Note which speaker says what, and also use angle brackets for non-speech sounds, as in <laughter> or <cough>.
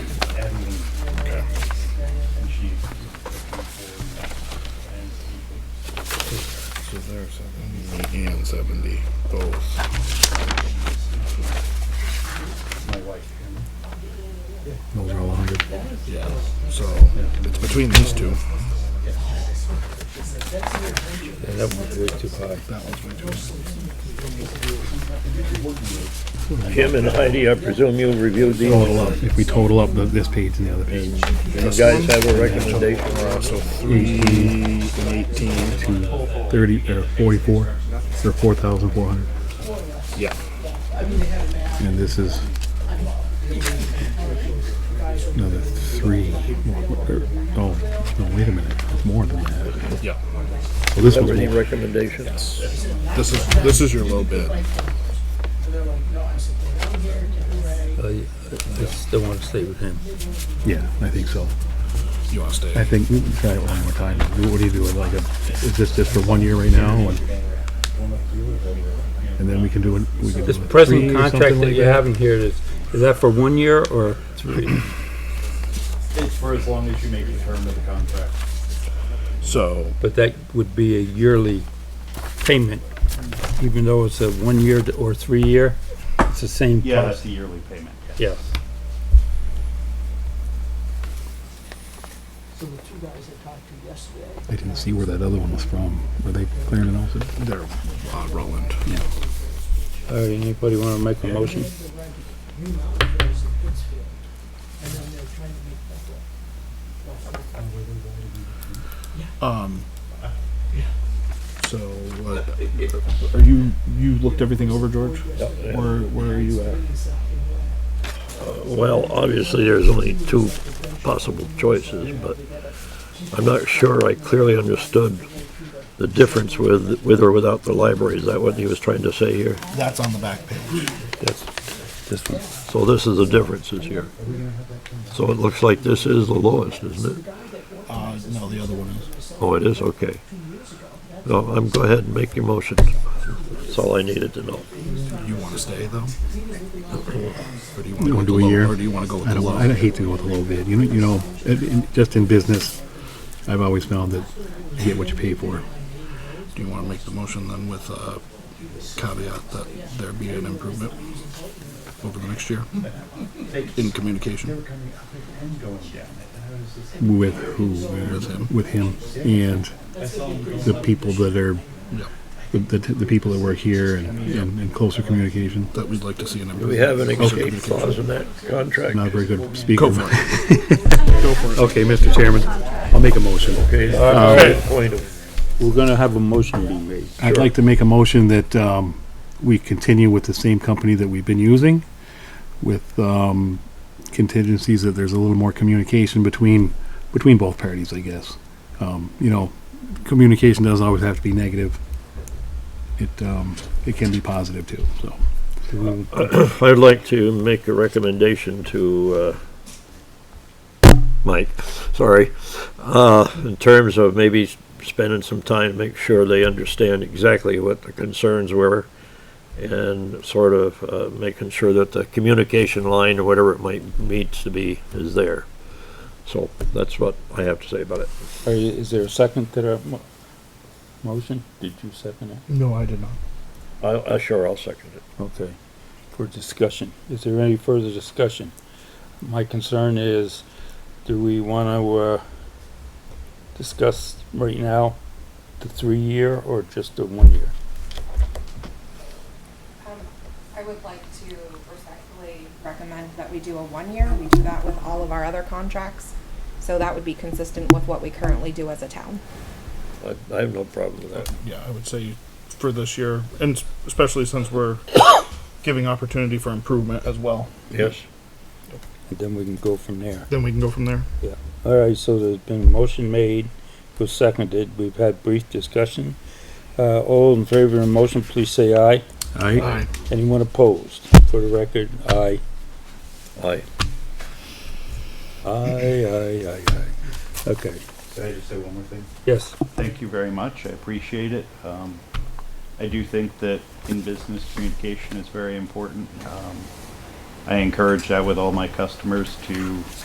Speaker 1: seventy, both.
Speaker 2: my wife.
Speaker 3: Those are all 100.
Speaker 1: Yeah. So it's between these two.
Speaker 4: Yeah, that one's way too high.
Speaker 1: That one's way too.
Speaker 4: Jim and Heidi, I presume you reviewed these,
Speaker 3: Total up, if we total up the- this page and the other page.
Speaker 4: and you guys have a recommendation?
Speaker 1: Uh, so three and eighteen.
Speaker 3: to 30, or 44, or 4,400.
Speaker 1: Yeah.
Speaker 3: And this is another three. or- Oh, no, wait a minute. It's more than that.
Speaker 1: Yeah.
Speaker 3: Well, this
Speaker 4: That
Speaker 3: was
Speaker 4: was your
Speaker 3: more.
Speaker 4: recommendation?
Speaker 1: This is this is your low bid.
Speaker 5: I I still want to stay with him.
Speaker 3: Yeah, I think so.
Speaker 1: You want to stay?
Speaker 3: I think we can try it one more time. Do- What do you do? Like, a, is this just for one year right now? And, and then we can do it. We can
Speaker 5: This
Speaker 3: do a three
Speaker 5: present
Speaker 3: or
Speaker 5: contract
Speaker 3: something
Speaker 5: that
Speaker 3: like
Speaker 5: you're having here, is, is that for one year or three?
Speaker 2: It's for as long as you make the term of the contract.
Speaker 1: So
Speaker 5: But that would be a yearly payment, even though it's a one-year to- or three-year, it's the same
Speaker 2: Yeah, that's
Speaker 5: cost.
Speaker 2: the yearly payment.
Speaker 5: Yes.
Speaker 6: So the two guys I talked to yesterday,
Speaker 3: I didn't see where that other one was from. Were they clearing it also?
Speaker 1: they're uh, Roland.
Speaker 5: All right, anybody want to make a motion?
Speaker 6: they're renting new mountain goes in Pittsfield, and then they're trying to make that up.
Speaker 1: Um. So what? Are you you looked everything over, George? Where where are you at?
Speaker 4: Well, obviously, there's only two possible choices, but I'm not sure I clearly understood the difference with, with or without the library. Is that what he was trying to say here?
Speaker 1: That's on the back page.
Speaker 4: That's, this one. So this is the differences here. So it looks like this is the lowest, isn't it?
Speaker 1: Uh, no, the other one is.
Speaker 4: Oh, it is, okay. No, I'm, go ahead and make your motion. That's all I needed to know.
Speaker 1: You want to stay though? Or do you want to go
Speaker 3: You wanna do a
Speaker 1: with the
Speaker 3: year?
Speaker 1: low? Or do you want to go with
Speaker 3: I
Speaker 1: the
Speaker 3: don't,
Speaker 1: low?
Speaker 3: want- I'd hate to go with a low bid. You know, you know, it- in- just in business, I've always found that you get what you pay for.
Speaker 1: Do you want to make the motion then with a caveat that there be an improvement over the next year in communication?
Speaker 3: With who?
Speaker 1: With him.
Speaker 3: With him and the people that are,
Speaker 1: Yeah.
Speaker 3: the, the, the people that work here and, and, and closer communication.
Speaker 1: That we'd like to see an improvement.
Speaker 4: Do we have an
Speaker 1: Closer
Speaker 4: escape
Speaker 1: communication.
Speaker 4: clause in that contract?
Speaker 3: Not a very good speaker.
Speaker 1: Go for
Speaker 3: <laughs>
Speaker 1: it.
Speaker 3: Okay, Mr. Chairman, I'll make a motion. Uh,
Speaker 4: Okay, all right, point of-
Speaker 5: We're going to have a motion be made.
Speaker 3: I'd like to make a motion that um, we continue with the same company that we've been using with um, contingencies that there's a little more communication between, between both parties, I guess. Um, You know, communication doesn't always have to be negative. It, um, it can be positive too, so.
Speaker 4: Uh, I'd like to make a recommendation to, uh, Mike, sorry, uh, in terms of maybe s- spending some time, make sure they understand exactly what the concerns were and sort of, uh, making sure that the communication line or whatever it might needs to be is there. So that's what I have to say about it.
Speaker 5: All right, Is there a second to the mo- motion? Did you second it?
Speaker 1: No, I did not.
Speaker 4: I, I sure, I'll second it.
Speaker 5: Okay, for discussion. Is there any further discussion? My concern is, do we want to discuss right now the three-year or just the one-year?
Speaker 7: Um, I would like to respectfully recommend that we do a one-year. We do that with all of our other contracts. So that would be consistent with what we currently do as a town.
Speaker 4: I, I have no problem with that.
Speaker 8: yeah, I would say for this year, and s- especially since we're <coughs> giving opportunity for improvement as well,
Speaker 4: Yes.
Speaker 5: And then we can go from there.
Speaker 8: then we can go from there.
Speaker 5: All right, so there's been a motion made, was seconded. We've had brief discussion. Uh, All in favor of the motion, please say aye.
Speaker 1: Aye.
Speaker 5: Anyone opposed? For the record, aye.
Speaker 4: Aye.
Speaker 5: Aye, aye, aye, aye. Okay,
Speaker 2: Can I just say one more thing?
Speaker 5: yes.
Speaker 2: Thank you very much. I appreciate it. Um, I do think that in business, communication is very important. Um, I encourage that with all my customers to